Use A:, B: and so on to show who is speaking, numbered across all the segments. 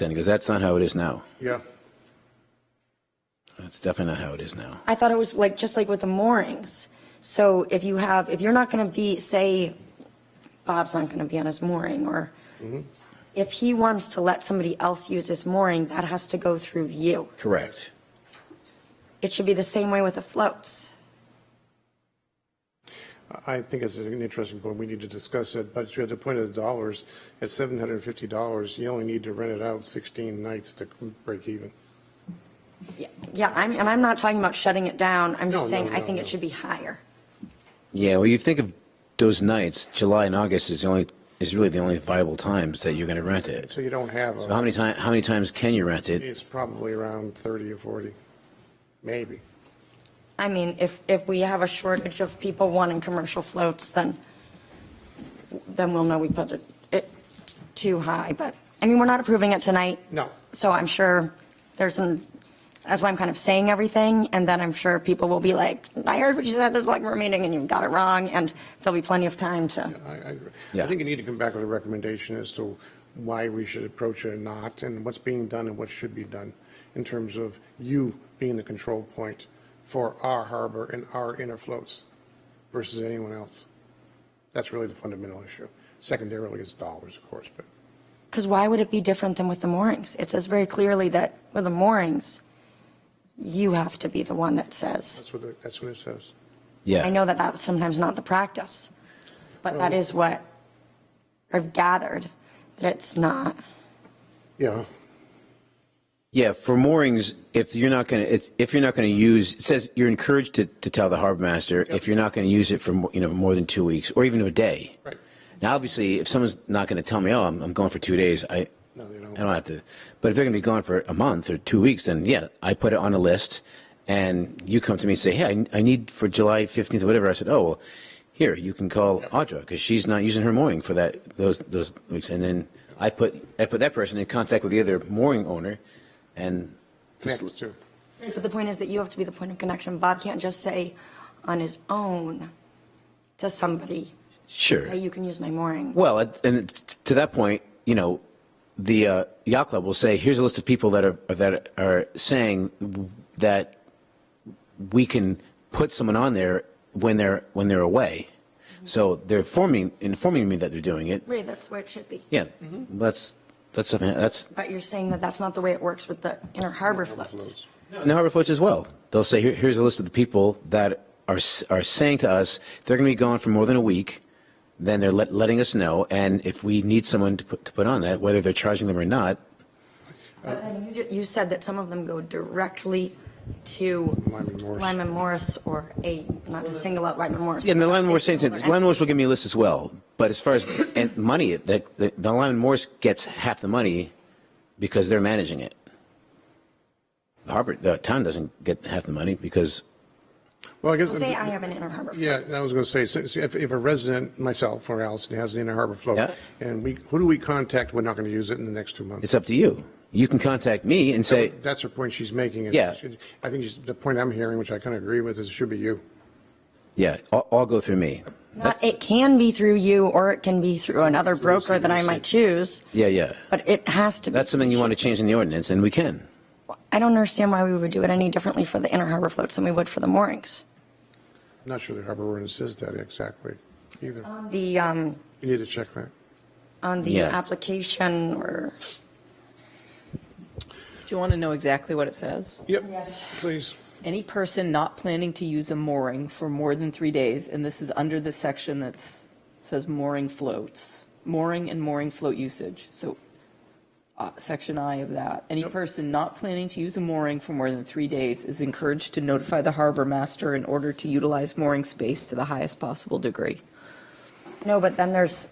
A: then, because that's not how it is now.
B: Yeah.
A: That's definitely not how it is now.
C: I thought it was like, just like with the moorings. So if you have, if you're not going to be, say, Bob's not going to be on his mooring, or
B: Mm-hmm.
C: if he wants to let somebody else use his mooring, that has to go through you.
A: Correct.
C: It should be the same way with the floats.
B: I think it's an interesting point. We need to discuss it, but you had the point of the dollars. At $750, you only need to rent it out 16 nights to break even.
C: Yeah, I'm, and I'm not talking about shutting it down. I'm
B: No,
C: just saying,
B: no,
C: I
B: no,
C: think
B: no.
C: it should be higher.
A: Yeah, well, you think of those nights, July and August is the only, is really the only viable times that you're going to rent it.
B: So you don't have,
A: So how
B: a.
A: many times? how many times can you rent it?
B: it's probably around 30 or 40, maybe.
C: I mean, if, if we have a shortage of people wanting commercial floats, then, then we'll know we put it, it too high, but, I mean, we're not approving it tonight.
B: No.
C: So I'm sure there's some, that's why I'm kind of saying everything, and then I'm sure people will be like, I heard what you said at the select board meeting, and you got it wrong, and there'll be plenty of time to,
B: I, I, agree. I
A: Yeah.
B: think you need to come back with a recommendation as to why we should approach it or not, and what's being done and what should be done in terms of you being the control point for our harbor and our inner floats versus anyone else. That's really the fundamental issue. Secondarily is dollars, of course, but
C: because why would it be different than with the moorings? It says very clearly that with the moorings, you have to be the one that says.
B: that's what, it- that's what it says.
A: Yeah.
C: I know that that's sometimes not the practice, but that is what I've gathered, that it's not.
B: Yeah,
A: Yeah, for moorings, if you're not going to, if you're not going to use, it says you're encouraged to, to tell the harbor master if you're not going to use it for, mo- you know, more than two weeks or even a day.
B: Right.
A: Now, obviously, if someone's not going to tell me, oh, I'm, I'm going for two days, I,
B: No, they don't.
A: I don't have to. But if they're going to be gone for a month or two weeks, then yeah, I put it on a list and you come to me and say, hey, I, I need for July 15th or whatever. I said, oh, well, here, you can call Audra because she's not using her mooring for that, those, those weeks. And then I put, I put that person in contact with the other mooring owner and just
B: connects to.
C: But the point is that you have to be the point of connection. Bob can't just say on his own to somebody,
A: Sure.
C: hey, you can use my mooring.
A: Well, at- and t- to that point, you know, the uh, yacht club will say, "Here's a list of people that are that are saying that we can put someone on there when they're when they're away." So they're forming informing me that they're doing it.
C: Right, that's where it should be.
A: Yeah, that's that's something that's
C: But you're saying that that's not the way it works with the inner harbor floats.
A: in the harbor floats as well. They'll say, Here, "Here's a list of the people that are s- are saying to us they're going to be gone for more than a week." Then they're let, letting us know, and if we need someone to put, to put on that, whether they're charging them or not,
C: But then you ju- You said that some of them go directly to
B: Lyman Morris.
C: Lyman Morris or a, not to single out Lyman Morris.
A: Yeah, and the
C: but
A: Lyman
C: a
A: Morris same thing.
C: similar
A: Lyman
C: entity.
A: Morris will give me a list as well. But as far as and money, the, the, the Lyman Morris gets half the money because they're managing it. The harbor, the town doesn't get half the money because
B: Well, I guess.
C: Say I have an inner harbor float.
B: Yeah, and I was going to say, so- so if, if a resident, myself or Allison, has an inner harbor float,
A: Yeah.
B: and we, who do we contact? We're not going to use it in the next two months.
A: it's up to you. You can contact me and say,
B: That's her point she's making. and
A: Yeah.
B: she- I think she's- the point I'm hearing, which I kind of agree with, is it should be you.
A: yeah, all, all go through me.
C: Not, it can be through you or it can be through another broker that I might choose,
A: Yeah, yeah.
C: but it has to be.
A: That's something you want to change in the ordinance, and we can.
C: I don't understand why we would do it any differently for the inner harbor floats than we would for the moorings.
B: I'm Not sure the harbor ordinance says that exactly either.
C: The, um,
B: You need to check that.
C: on the
A: Yeah.
C: application or.
D: Do you want to know exactly what it says?
B: Yep,
C: Yes.
B: please.
D: Any person not planning to use a mooring for more than three days, and this is under the section that says mooring floats, mooring and mooring float usage. So, uh, section I of that. Any person not planning to use a mooring for more than three days is encouraged to notify the harbor master in order to utilize mooring space to the highest possible degree.
C: No, but then there's,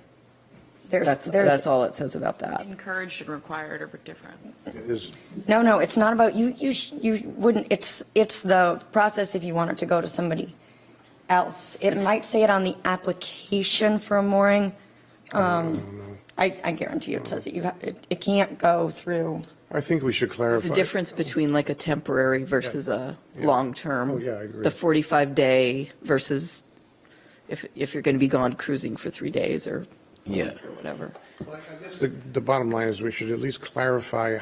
C: there's,
D: That's,
C: there's,
D: that's all it says about that.
E: Encouraged and required are different.
B: It is-
C: no, no, it's not about, you, you, sh- you wouldn't, it's, it's the process if you want it to go to somebody else. It might say it on the application for a mooring. Um, I, I guarantee you it says it, you have, it, it can't go through.
B: I think we should clarify.
D: The difference between like a temporary versus a
B: Yeah.
D: long-term.
B: Oh, yeah, I agree.
D: The 45-day versus if, if you're going to be gone cruising for three days or
A: Yeah.
D: or whatever.
B: I guess The the bottom line is we should at least clarify